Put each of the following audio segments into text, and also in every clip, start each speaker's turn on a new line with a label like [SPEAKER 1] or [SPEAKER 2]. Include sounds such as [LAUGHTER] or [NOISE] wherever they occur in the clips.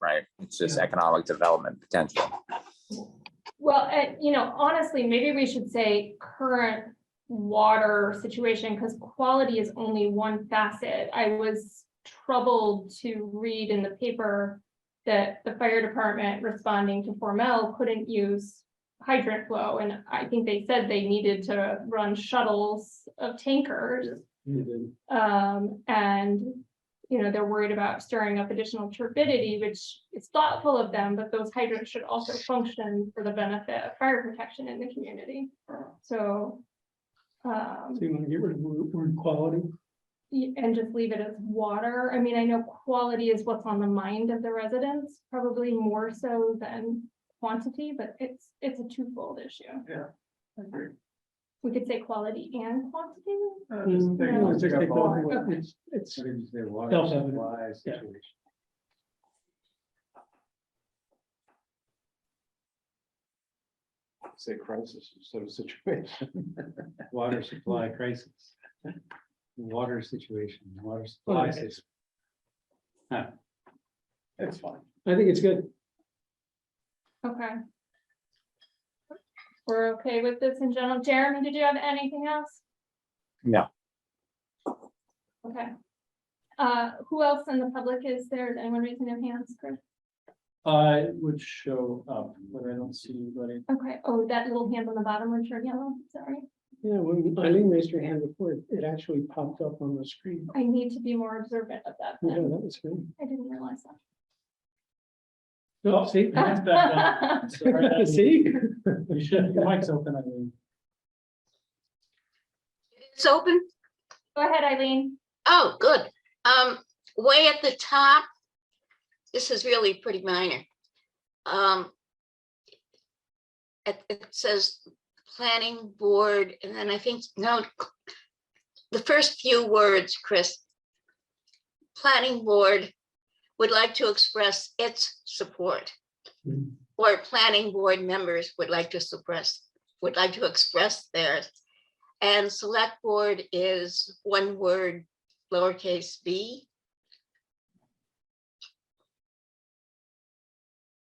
[SPEAKER 1] right? It's just economic development potential.
[SPEAKER 2] Well, and, you know, honestly, maybe we should say current water situation, because quality is only one facet. I was troubled to read in the paper that the fire department responding to Formel couldn't use hydrant flow, and I think they said they needed to run shuttles of tankers. Um, and, you know, they're worried about stirring up additional turbidity, which is thoughtful of them, but those hydrants should also function for the benefit of fire protection in the community. So. Um,
[SPEAKER 3] So you want to get rid of the word quality?
[SPEAKER 2] y- and just leave it as water. I mean, I know quality is what's on the mind of the residents, probably more so than quantity, but it's, it's a twofold issue. We could say quality and quantity.
[SPEAKER 4] Uh, just
[SPEAKER 3] Mm,
[SPEAKER 4] take-
[SPEAKER 3] no,
[SPEAKER 4] just
[SPEAKER 3] take
[SPEAKER 4] take
[SPEAKER 3] the
[SPEAKER 4] off
[SPEAKER 3] word.
[SPEAKER 4] water.
[SPEAKER 3] It's, it's,
[SPEAKER 4] I think just say water
[SPEAKER 3] Self-evident.
[SPEAKER 4] supply
[SPEAKER 3] Yeah.
[SPEAKER 4] situation. Say crisis instead of situation. [LAUGHS] Water supply crisis. Water situation, water supply.
[SPEAKER 3] Okay.
[SPEAKER 4] situation. Huh. It's fine.
[SPEAKER 3] I think it's good.
[SPEAKER 2] Okay. We're okay with this in general. Jeremy, did you have anything else?
[SPEAKER 1] No.
[SPEAKER 2] Okay. Uh, who else in the public is there? Is anyone raising their hands? Chris?
[SPEAKER 4] I would show up, but I don't see anybody.
[SPEAKER 2] Okay, oh, that little hand on the bottom one turned yellow, sorry.
[SPEAKER 3] Yeah, when Eileen raised her hand before, it- it actually popped up on the screen.
[SPEAKER 2] I need to be more observant of that.
[SPEAKER 3] Yeah, that
[SPEAKER 2] then.
[SPEAKER 3] was good.
[SPEAKER 2] I didn't realize
[SPEAKER 3] Oh, see? [LAUGHS]
[SPEAKER 2] that.
[SPEAKER 3] See?
[SPEAKER 4] You should, your mic's open, I mean.
[SPEAKER 5] It's open?
[SPEAKER 2] [LAUGHS] Go ahead, Eileen.
[SPEAKER 5] Oh, good. Um, way at the top. This is really pretty minor. Um. It, it says planning board, and then I think, no. The first few words, Chris. Planning board would like to express its support.
[SPEAKER 3] Hmm.
[SPEAKER 5] Or planning board members would like to suppress, would like to express theirs. And select board is one word, lowercase b.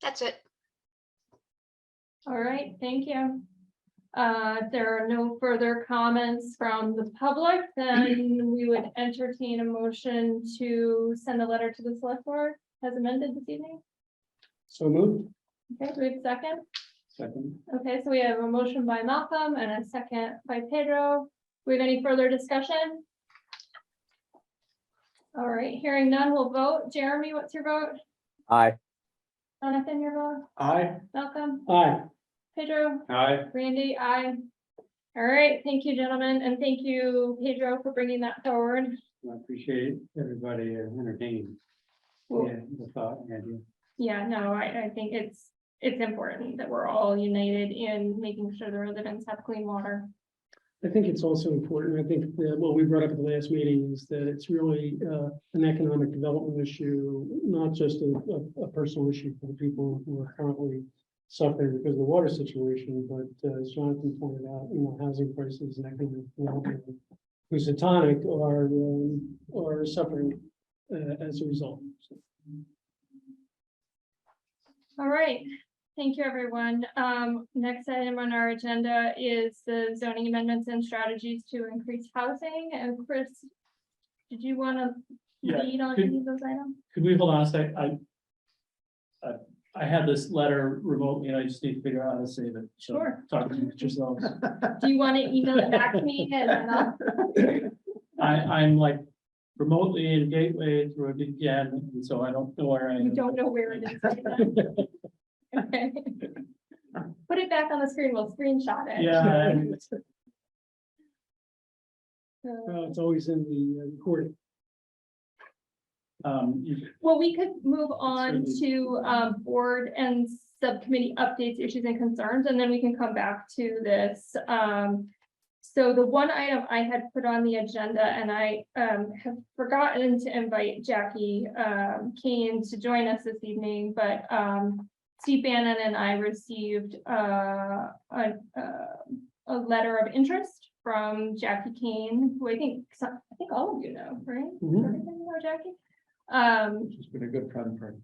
[SPEAKER 5] That's it.
[SPEAKER 2] All right, thank you. Uh, if there are no further comments from the public, then we would entertain a motion to send a letter to the select board as amended this evening.
[SPEAKER 3] So moved.
[SPEAKER 2] Okay, do we have a second?
[SPEAKER 4] Second.
[SPEAKER 2] Okay, so we have a motion by Malcolm and a second by Pedro. We have any further discussion? All right, hearing none, we'll vote. Jeremy, what's your vote?
[SPEAKER 1] Aye.
[SPEAKER 2] Jonathan, your vote?
[SPEAKER 4] Aye.
[SPEAKER 2] Malcolm?
[SPEAKER 3] Aye.
[SPEAKER 2] Pedro?
[SPEAKER 4] Aye.
[SPEAKER 2] Randy, I. All right, thank you, gentlemen, and thank you, Pedro, for bringing that forward.
[SPEAKER 4] I appreciate everybody uh, entertained.
[SPEAKER 2] Well-
[SPEAKER 4] Yeah, the thought, and idea.
[SPEAKER 2] Yeah, no, I, I think it's, it's important that we're all united in making sure the residents have clean water.
[SPEAKER 3] I think it's also important. I think that what we brought up at the last meeting is that it's really uh, an economic development issue, not just a, a- a personal issue for the people who are currently suffering because of the water situation, but uh, as Jonathan pointed out, you know, housing prices and economic development, who's a tonic are, um, are suffering uh, as a result. So,
[SPEAKER 2] All right, thank you, everyone. Um, next item on our agenda is the zoning amendments and strategies to increase housing, and Chris, did you want to
[SPEAKER 6] Yeah,
[SPEAKER 2] lead on
[SPEAKER 6] could-
[SPEAKER 2] any of those items?
[SPEAKER 6] could we hold on a sec? I. I, I had this letter remotely and I just need to figure out how to save it. So
[SPEAKER 2] Sure.
[SPEAKER 6] Talk to you yourselves.
[SPEAKER 2] Do you want to email it back to me and then I'll
[SPEAKER 6] I, I'm like remotely in Gateway through VPN, and so I don't know where I
[SPEAKER 2] You
[SPEAKER 6] am.
[SPEAKER 2] don't know where it is. right now. Okay. Put it back on the screen, we'll screenshot it. [LAUGHS]
[SPEAKER 6] Yeah, I'm-
[SPEAKER 2] So-
[SPEAKER 3] uh, It's always in the uh, recording.
[SPEAKER 6] um, you-
[SPEAKER 2] Well, we could move on
[SPEAKER 6] Certainly.
[SPEAKER 2] to um board and subcommittee updates, issues and concerns, and then we can come back to this. Um, so the one item I had put on the agenda and I um have forgotten to invite Jackie um Kane to join us this evening, but um Steve Bannon and I received uh a uh, a letter of interest from Jackie Kane, who I think, some- I think all of you know, right?
[SPEAKER 3] Mhm.
[SPEAKER 2] Everybody know Jackie? Um,
[SPEAKER 4] She's been a good friend for